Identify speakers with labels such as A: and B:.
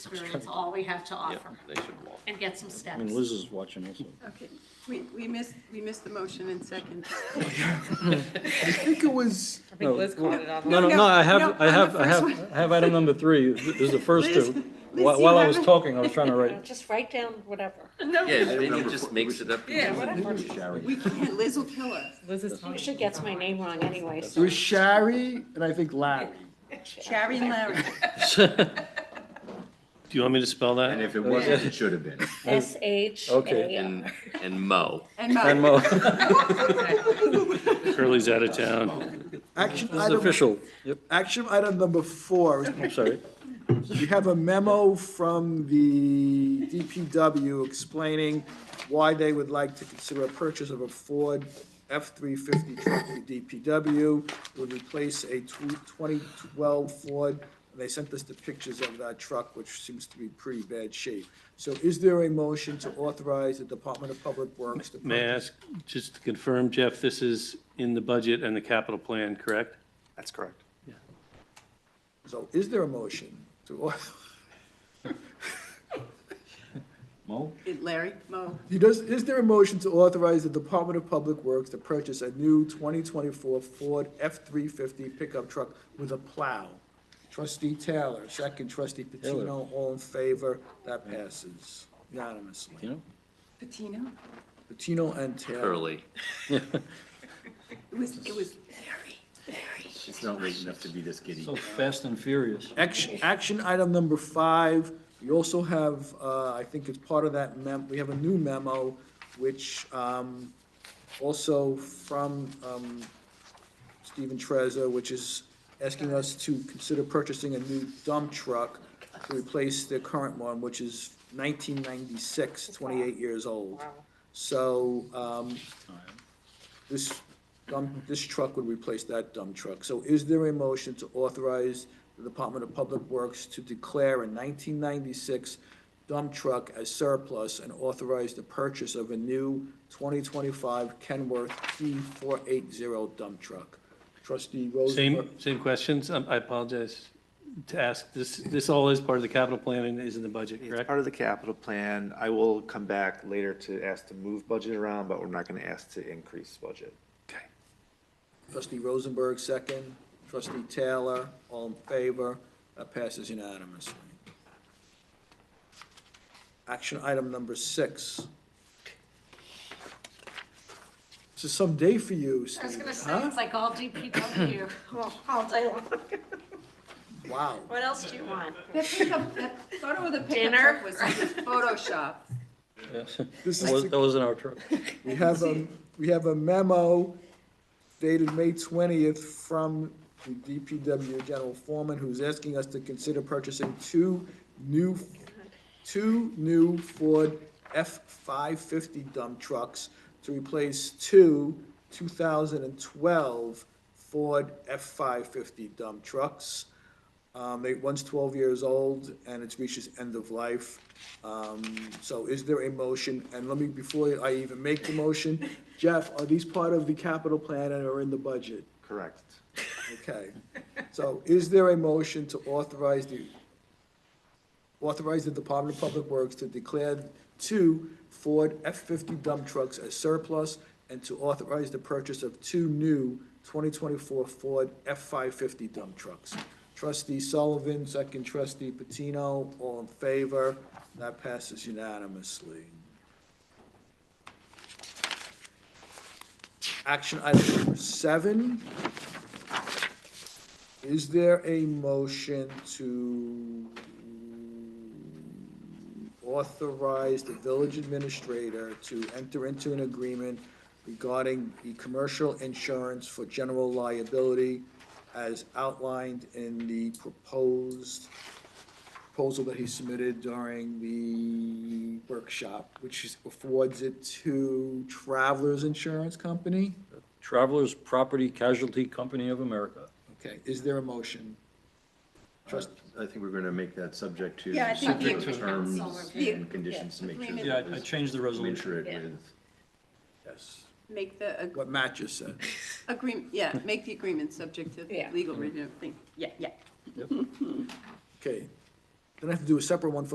A: experience, all we have to
B: Yeah,
A: offer,
B: they should walk.
A: and get some
C: I
A: steps.
C: mean, Liz is watching also.
D: Okay, we, we missed, we missed the motion and second.
C: I think it was.
E: I think Liz caught it on.
C: No, no,
D: No,
C: no, I
D: no,
C: have, I
D: on
C: have,
D: the
C: I
D: first
C: have, I have item number three. This is the first
D: Liz-
C: two.
D: Liz,
C: While
D: you
C: while I was
D: haven't-
C: talking, I was trying to write.
F: Just write down whatever.
B: Yeah, then he just makes it up.
E: Yeah, whatever.
D: We can't, Liz will kill us.
E: Liz is telling
F: She gets my name wrong anyway,
G: It
F: so.
G: was Shari and I think Larry.
D: Shari and Larry.
H: Do you want me to spell that?
I: And if it wasn't, it should have been.
F: S H
C: Okay.
F: A.
B: And, and Mo.
D: And
C: And
D: Mo.
C: Mo,
H: Curly's out of town.
G: Action
C: this is
G: item,
C: official. Yep,
G: action item number four.
C: I'm sorry.
G: You have a memo from the DPW explaining why they would like to consider a purchase of a Ford F-350 truck for DPW. It Would replace a tw- 2012 Ford. And They sent us the pictures of that truck, which seems to be pretty bad shape. So is there a motion to authorize the Department of Public Works to
H: May I
G: purchase?
H: ask, just to confirm, Jeff, this is in the budget and the capital plan, correct?
J: That's correct.
G: So is there a motion to, auth-
C: Mo?
D: Larry, Mo.
G: He does, is there a motion to authorize the Department of Public Works to purchase a new 2024 Ford F-350 pickup truck with a plow? Trustee Taylor, second trustee Patino, all in favor, that passes
C: You
G: unanimously.
C: know?
D: Patino?
G: Patino and Taylor.
B: Curly.
D: It was, it was Larry.
I: It's not late enough to be this giddy.
C: So fast and furious.
G: Action, action item number five, we also have, uh, I think it's part of that mem, we have a new memo, which, um, also from, um, Stephen Trezor, which is asking us to consider purchasing a new dump truck to replace the current one, which is 1996, 28 years old. So um, this dump, this truck would replace that dump truck. So is there a motion to authorize the Department of Public Works to declare a 1996 dump truck as surplus and authorize the purchase of a new 2025 Kenworth D480 dump truck? Trustee Rose.
H: Same, same questions? Um, I apologize to ask. This, this all is part of the capital plan and is in the budget,
J: It's
H: correct?
J: part of the capital plan. I will come back later to ask to move budget around, but we're not going to ask to increase budget.
G: Trustee Rosenberg, second. Trustee Taylor, all in favor. That passes unanimously. Action item number six. This is some day for you,
A: I was
G: Steve,
A: gonna say,
G: huh?
A: it's like all DPW.
F: Well, all day long.
G: Wow.
F: What else do you want?
D: That pickup, that photo of the pickup
F: Dinner?
D: truck was Photoshop.
C: Yes.
G: This
C: That was-
G: is,
C: that wasn't our truck.
G: we have a, we have a memo dated May twentieth from the DPW General Foreman, who's asking us to consider purchasing two new, two new Ford F-550 dump trucks to replace two 2012 Ford F-550 dump trucks. Um, they, one's 12 years old and it's reached its end of life. Um, so is there a motion? And let me, before I even make the motion, Jeff, are these part of the capital plan and are in the budget?
J: Correct.
G: Okay. So is there a motion to authorize the, authorize the Department of Public Works to declare two Ford F-50 dump trucks as surplus and to authorize the purchase of two new 2024 Ford F-550 dump trucks? Trustee Sullivan, second trustee Patino, all in favor. That passes unanimously. Action item number seven. Is there a motion to authorize the village administrator to enter into an agreement regarding the commercial insurance for general liability as outlined in the proposed proposal that he submitted during the workshop, which is- affords it to Travelers Insurance Company?
C: Travelers Property Casualty Company of America.
G: Okay, is there a motion? Trust,
I: I think we're going to make that subject to
D: Yeah, I think the-
I: specific terms
A: Yeah.
I: and conditions to make sure.
D: Yeah,
C: Yeah,
I: that
C: I- I
I: it's
C: changed the resolution.
I: commensurate
A: Yeah.
I: with.
G: yes.
D: Make the ag-
G: What Matt just said.
D: agreement, yeah, make the agreement subject to
F: Yeah.
D: legal review thing. Yeah, yeah.
G: Okay. Then I have to do a separate one for